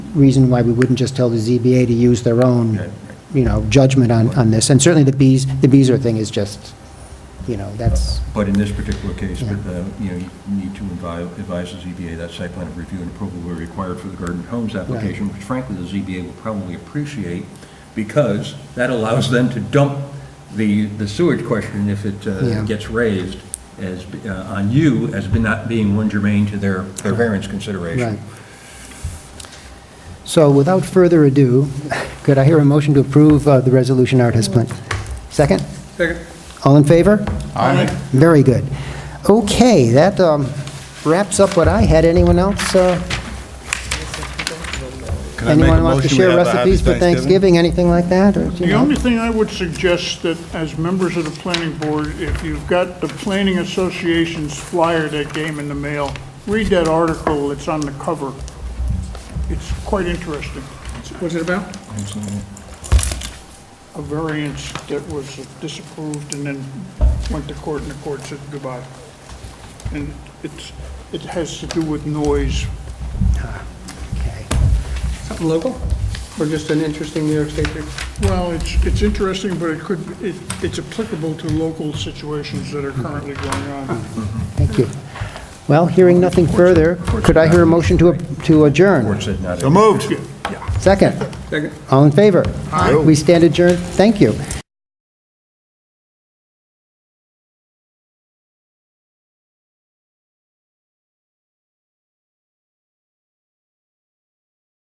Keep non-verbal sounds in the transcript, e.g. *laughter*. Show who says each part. Speaker 1: reason why we wouldn't just tell the ZBA to use their own, you know, judgment on, on this. And certainly the Bees, the Beezer thing is just, you know, that's,
Speaker 2: But in this particular case,
Speaker 1: Yeah.
Speaker 2: uh, you know, you need to advise advise the ZBA that site plan review and approval were required for the Garden Homes application, which frankly, the ZBA will probably appreciate, because that allows them to dump the the sewage question if it uh,
Speaker 1: Yeah.
Speaker 2: gets raised as, uh, on you as be- not being one germane to their their variance
Speaker 1: right.
Speaker 2: consideration.
Speaker 1: So without further ado, *laughs* could I hear a motion to approve uh, the resolution Art has planned? Second?
Speaker 2: Second.
Speaker 1: All in favor? Very good. Okay, that um, wraps up what I had. Anyone else? uh,
Speaker 3: Can I make a
Speaker 1: Anyone wants to
Speaker 3: motion we
Speaker 1: share
Speaker 3: have a happy
Speaker 1: recipes for Thanksgiving, anything like that? or, you
Speaker 4: The
Speaker 1: know?
Speaker 4: only thing I would suggest that as members of the planning board, if you've got the planning association's flyer that came in the mail, read that article, it's on the cover. It's quite interesting.
Speaker 5: What's it about?
Speaker 4: A variance that was disapproved and then went to court and the court said goodbye. And it's, it has to do with noise.
Speaker 1: Okay.
Speaker 5: Something local? Or just an interesting New York State? thing?
Speaker 4: Well, it's, it's interesting, but it could, it, it's applicable to local situations that are currently going on.
Speaker 1: Thank you. Well, hearing nothing further, could I hear a motion to to adjourn?
Speaker 2: Board said not.
Speaker 3: So moved.
Speaker 1: Second?
Speaker 5: Second.
Speaker 1: All in favor? We stand adjourned. Thank you.